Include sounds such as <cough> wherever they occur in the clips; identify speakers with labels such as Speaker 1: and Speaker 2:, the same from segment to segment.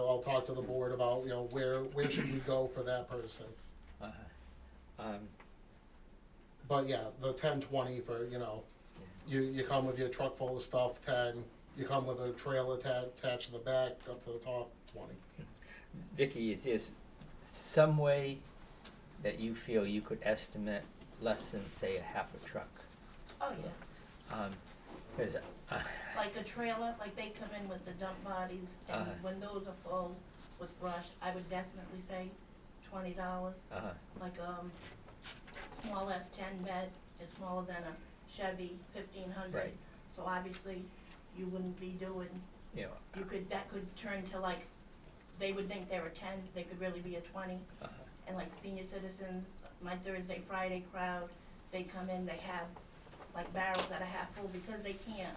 Speaker 1: talk to the board about, you know, where, where should we go for that person?
Speaker 2: Uh, um,
Speaker 1: But yeah, the ten twenty for, you know, you, you come with your truck full of stuff, ten, you come with a trailer ta- attached to the back, up to the top, twenty.
Speaker 2: Vicky, is there s- some way that you feel you could estimate less than, say, a half a truck?
Speaker 3: Oh, yeah,
Speaker 2: Um 'cause uh,
Speaker 3: like a trailer, like they come in with the dump bodies, and
Speaker 2: Uh-huh.
Speaker 3: when those are full with brush, I would definitely say twenty dollars.
Speaker 2: uh,
Speaker 3: Like, um, small S ten bed is smaller than a Chevy fifteen hundred.
Speaker 2: right,
Speaker 3: So obviously, you wouldn't be doing,
Speaker 2: you know,
Speaker 3: you could, that could turn to like, they would think they're a ten, they could really be a twenty.
Speaker 2: uh,
Speaker 3: and like senior citizens, my Thursday, Friday crowd, they come in, they have like barrels that are half full because they can't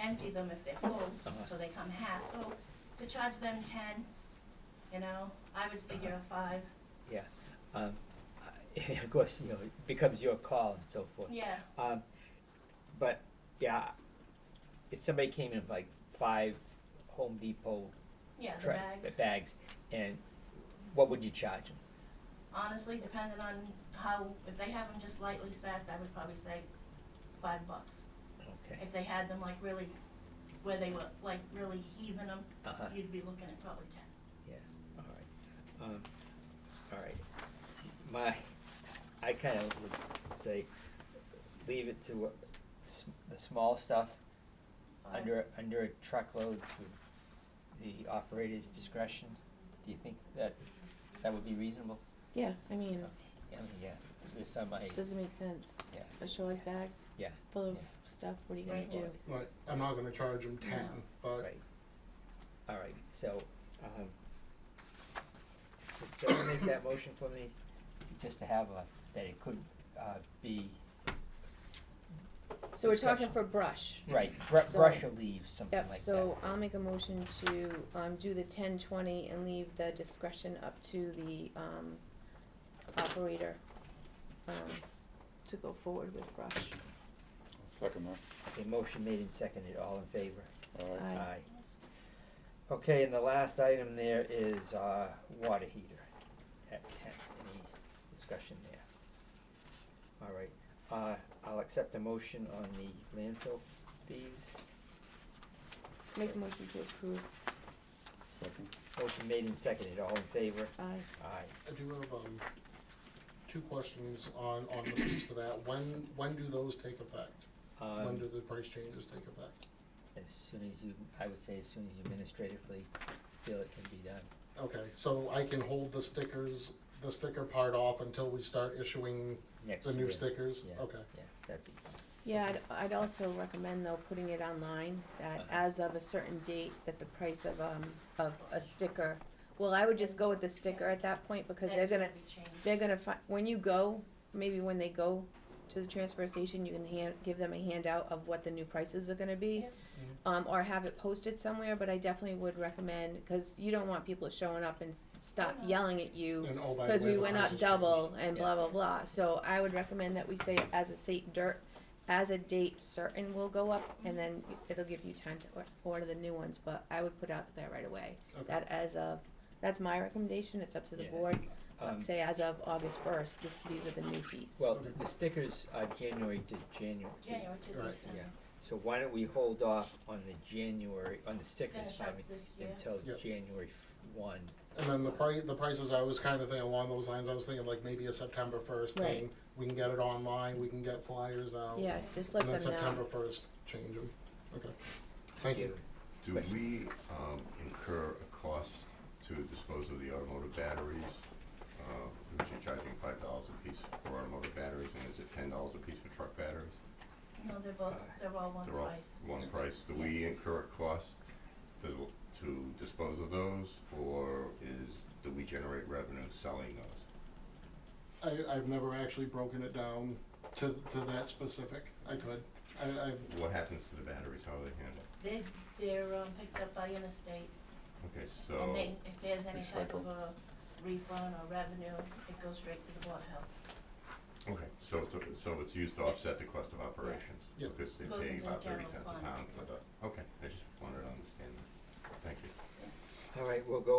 Speaker 3: empty them if they're full,
Speaker 2: Uh-huh.
Speaker 3: so they come half, so to charge them ten, you know, I would figure a five,
Speaker 2: yeah. Um, <laughs> I- of course, you know, it becomes your call and so forth.
Speaker 3: yeah,
Speaker 2: Um, but yeah, if somebody came in with like five Home Depot
Speaker 3: yeah, the
Speaker 2: tra-
Speaker 3: bags.
Speaker 2: bags, and what would you charge them?
Speaker 3: Honestly, depending on how, if they have them just lightly stacked, I would probably say five bucks.
Speaker 2: Okay,
Speaker 3: If they had them like really, where they were like really heaving them,
Speaker 2: uh-huh.
Speaker 3: you'd be looking at probably ten.
Speaker 2: Yeah, all right. Um, all right. My, I kind of would say, leave it to uh, s- the small stuff,
Speaker 3: Five.
Speaker 2: under, under a truckload to the operator's discretion. Do you think that, that would be reasonable?
Speaker 4: Yeah, I mean,
Speaker 2: I mean, yeah, there's some, I,
Speaker 4: does it make sense?
Speaker 2: yeah,
Speaker 4: A shower's bag
Speaker 2: yeah,
Speaker 4: full of
Speaker 2: Yeah.
Speaker 4: stuff, what are you gonna
Speaker 3: Right.
Speaker 4: do?
Speaker 1: Right, I'm not gonna charge them ten,
Speaker 3: No.
Speaker 1: but
Speaker 2: right. All right, so, um, could someone make that motion for me? Just to have a, that it could, uh, be
Speaker 4: So we're
Speaker 2: Discussion.
Speaker 4: talking for brush.
Speaker 2: Right, br-
Speaker 4: So-
Speaker 2: brush or leaves, something like
Speaker 4: Yep,
Speaker 2: that.
Speaker 4: so I'll make a motion to, um, do the ten twenty and leave the discretion up to the, um, operator, um, to go forward with brush.
Speaker 5: Second
Speaker 2: A motion made and seconded, all in favor?
Speaker 5: that, alright.
Speaker 4: Aye.
Speaker 2: Okay, and the last item there is, uh, water heater at ten, any discussion there? All right, uh, I'll accept a motion on the landfill fees,
Speaker 4: Make a motion to approve,
Speaker 5: Second.
Speaker 2: motion made and seconded, all in favor?
Speaker 4: aye.
Speaker 2: Aye.
Speaker 1: I do have, um, two questions on, on the piece for that. When, when do those take effect? When do
Speaker 2: Um,
Speaker 1: the price changes take effect?
Speaker 2: as soon as you, I would say as soon as you administratively feel it can be done.
Speaker 1: Okay, so I can hold the stickers, the sticker part off until we start issuing
Speaker 2: Next
Speaker 1: the new
Speaker 2: year.
Speaker 1: stickers?
Speaker 2: Yeah,
Speaker 1: Okay,
Speaker 2: Yeah, that'd be,
Speaker 4: Yeah, I'd, I'd also recommend though, putting it online, that
Speaker 2: Uh-huh.
Speaker 4: as of a certain date, that the price of, um, of a sticker, well, I would just go with the sticker at that point, because they're
Speaker 3: That's
Speaker 4: gonna,
Speaker 3: be changed.
Speaker 4: they're gonna fi- when you go, maybe when they go to the transfer station, you can hand, give them a handout of what the new prices are gonna be.
Speaker 3: Yeah.
Speaker 4: Um, or have it posted somewhere, but I definitely would recommend, cause you don't want people showing up and stop
Speaker 3: Oh, no.
Speaker 4: yelling at you,
Speaker 1: and oh, by the way,
Speaker 4: cause we
Speaker 1: the
Speaker 4: went
Speaker 1: price
Speaker 4: up
Speaker 1: has
Speaker 4: double
Speaker 1: changed.
Speaker 4: and
Speaker 2: Yeah.
Speaker 4: blah, blah, blah, so I would recommend that we say as a state dirt, as a date certain will go up, and then it'll give you time to or- order the new ones, but I would put out there right away,
Speaker 1: Okay.
Speaker 4: that as of, that's my recommendation, it's up to the
Speaker 2: Yeah.
Speaker 4: board,
Speaker 2: um,
Speaker 4: Let's say as of August first, this, these are the new fees.
Speaker 2: Well, the- the stickers are January to January.
Speaker 3: January to
Speaker 1: Right.
Speaker 3: December.
Speaker 2: Yeah, so why don't we hold off on the January, on the stickers,
Speaker 3: Finish
Speaker 2: pardon
Speaker 3: up
Speaker 2: me,
Speaker 3: this year.
Speaker 2: until
Speaker 1: Yep.
Speaker 2: January f- one?
Speaker 1: And then the price, the prices, I was kind of thinking along those lines, I was thinking like maybe a September first thing.
Speaker 4: Right.
Speaker 1: We can get it online, we can get flyers out.
Speaker 4: Yeah, just let
Speaker 1: And then
Speaker 4: them
Speaker 1: September
Speaker 4: know.
Speaker 1: first, change them. Okay, thank you.
Speaker 6: Do
Speaker 2: Question.
Speaker 6: we um, incur a cost to dispose of the automotive batteries? Uh, Which you're charging five dollars a piece for automotive batteries, and is it ten dollars a piece for truck batteries?
Speaker 3: No, they're both, they're all one
Speaker 6: They're all
Speaker 3: price.
Speaker 6: one price. Do we
Speaker 3: Yes.
Speaker 6: incur a cost to to dispose of those, or is, do we generate revenue selling those?
Speaker 1: I, I've never actually broken it down to, to that specific. I could. I, I've,
Speaker 6: What happens to the batteries? How are they handled?
Speaker 3: They're, they're um, picked up by interstate,
Speaker 6: Okay,
Speaker 3: and
Speaker 6: so,
Speaker 3: they, if there's any type of
Speaker 5: Recycle.
Speaker 3: a refund or revenue, it goes straight to the Board of Health.
Speaker 6: okay, so, it's- so it's used to offset the cost of operations?
Speaker 1: Yeah.
Speaker 6: Because they
Speaker 3: Goes
Speaker 6: pay
Speaker 3: into the
Speaker 6: about thirty
Speaker 3: general
Speaker 6: cents a
Speaker 3: fund.
Speaker 6: pound for the, okay, I just wanted to understand that. Thank you.
Speaker 2: All right, we'll go